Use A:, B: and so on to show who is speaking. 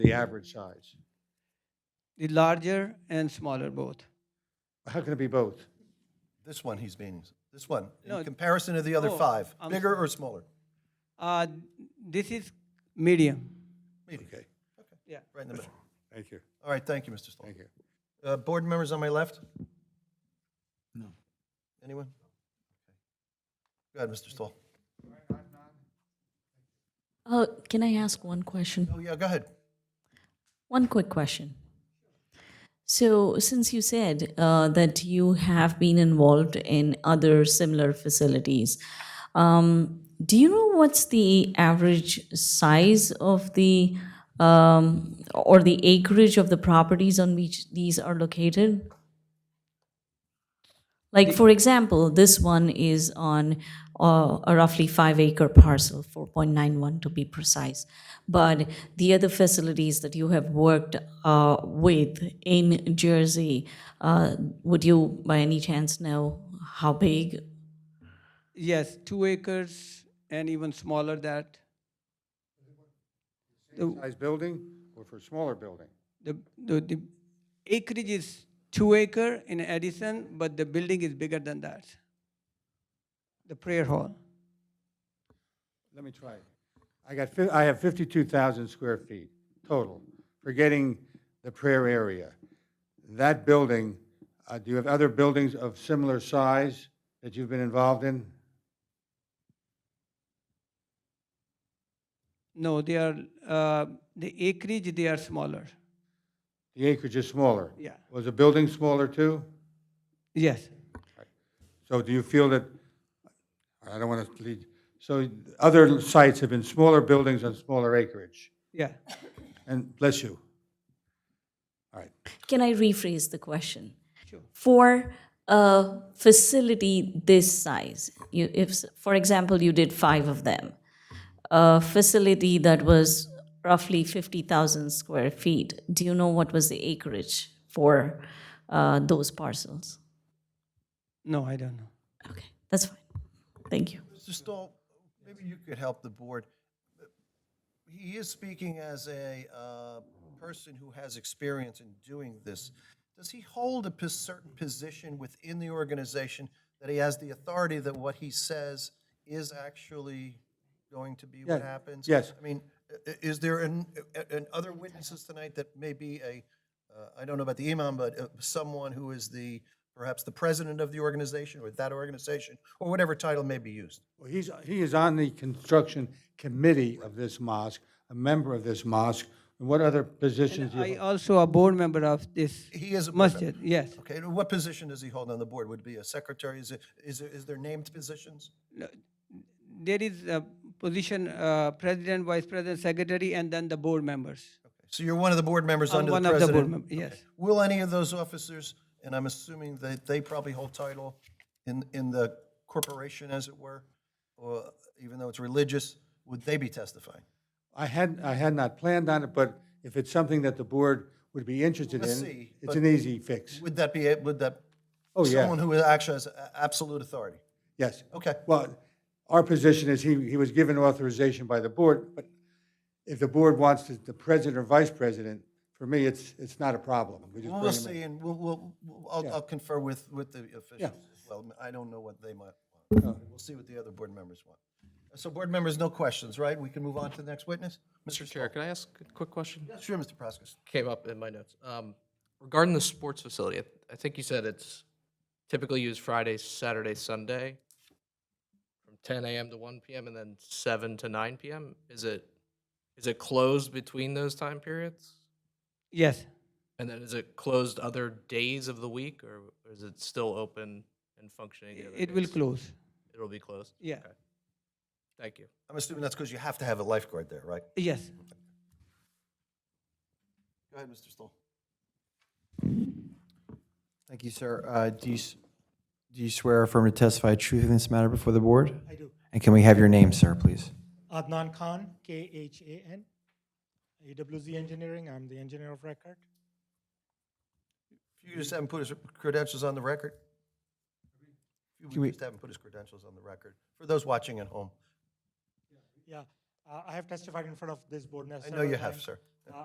A: the average size?
B: the larger and smaller both.
A: How can it be both?
C: This one he's meaning, this one,
B: No,
C: in comparison to the other
B: oh,
C: five,
B: I'm
C: bigger or smaller?
B: Uh, this is medium.
C: Medium,
A: Okay,
B: Yeah.
C: right in the middle.
A: thank you,
C: All right, thank you, Mr. Stallings.
A: thank you.
C: Uh, board members on my left? No. Anyone? Go ahead, Mr. Stoll.
D: Uh, can I ask one question?
C: Oh, yeah, go ahead.
D: One quick question. So, since you said uh, that you have been involved in other similar facilities, um, do you know what's the average size of the um, or the acreage of the properties on which these are located? Like, for example, this one is on uh, a roughly five acre parcel, 4.91 to be precise. But the other facilities that you have worked uh, with in Jersey, uh, would you by any chance know how big?
B: Yes, two acres and even smaller that. The,
A: Size building or for a smaller building?
B: the, the, the acreage is two acre in addition, but the building is bigger than that. The prayer hall.
A: Let me try. it. I got, fif- I have 52,000 square feet total, forgetting the prayer area. That building, uh, do you have other buildings of similar size that you've been involved in?
B: No, they are, uh, the acreage, they are smaller.
A: The acreage is smaller.
B: Yeah.
A: Was the building smaller too?
B: Yes.
A: So do you feel that, I don't want to lead, so other sites have been smaller buildings on smaller acreage?
B: Yeah.
A: And bless you. All right.
D: Can I rephrase the question?
B: Sure.
D: For a facility this size, you, if, s- for example, you did five of them, a facility that was roughly 50,000 square feet, do you know what was the acreage for uh, those parcels?
B: No, I don't know.
D: Okay, that's fine. Thank you.
C: Mr. Stoll, maybe you could help the board. He is speaking as a uh, person who has experience in doing this. Does he hold a pos- certain position within the organization that he has the authority that what he says is actually going to be what
A: Yeah,
C: happens?
A: yes.
C: I mean, i- i- is there an, a- an other witnesses tonight that may be a, uh, I don't know about the imam, but uh, someone who is the, perhaps the president of the organization or that organization, or whatever title may be used?
A: Well, he's, he is on the construction committee of this mosque, a member of this mosque. And what other positions do
C: uh,
A: you
B: I also a board member of this
C: He is a board member.
B: masjid, yes.
C: Okay, and what position does he hold on the board? Would it be a secretary? Is it, is, there- is there named positions?
B: There is a position, uh, president, vice president, secretary, and then the board members.
C: So you're one of the board members
B: I'm
C: under the
B: one of the board
C: president?
B: members, yes.
C: Will any of those officers, and I'm assuming that they probably hold title in, in the corporation, as it were, or even though it's religious, would they be testifying?
A: I had, I had not planned on it, but if it's something that the board would be interested
C: Let's
A: in,
C: see,
A: it's
C: but-
A: an easy fix.
C: Would that be, it? would that?
A: Oh, yeah.
C: Someone who actually has a- absolute authority?
A: Yes.
C: Okay.
A: Well, our position is he, he was given authorization by the board, but if the board wants to- the president or vice president, for me, it's, it's not a problem. We just
C: We'll we'll
A: bring him
C: see, and we'll, we'll, we'll- I'll, I'll confer with, with the officials as well. I don't know what they might want.
E: Oh.
C: We'll see what the other board members want. So board members, no questions, right? We can move on to the next witness?
F: Mr. Chair, can I ask a quick question?
C: Sure, Mr. Praskas.
F: Came up in my notes. Um, Regarding the sports facility, I- I think you said it's typically used Friday, Saturday, Sunday, from 10 AM to 1 PM, and then 7 to 9 PM? Is it, is it closed between those time periods?
B: Yes,
F: And then is it closed other days of the week, or is it still open and functioning? the other
B: it will
F: days?
B: close,
F: It'll be closed?
B: yeah,
F: Okay. Thank you.
C: I'm assuming that's because you have to have a lifeguard there, right?
B: yes.
C: Go ahead, Mr. Stoll.
E: Thank you, sir. Uh, Do you, s- do you swear or affirm to testify truth in this matter before the board? I do. And can we have your name, sir, please?
G: Adnan Khan, K-H-A-N, AWZ Engineering, I'm the engineer of record.
C: If you just haven't put his credentials on the record? If
E: Can
C: you
E: we-
C: just haven't put his credentials on the record, for those watching at home,
G: Yeah, uh, I have testified in front of this board now
C: I know you
G: several
C: have,
G: times.
C: sir.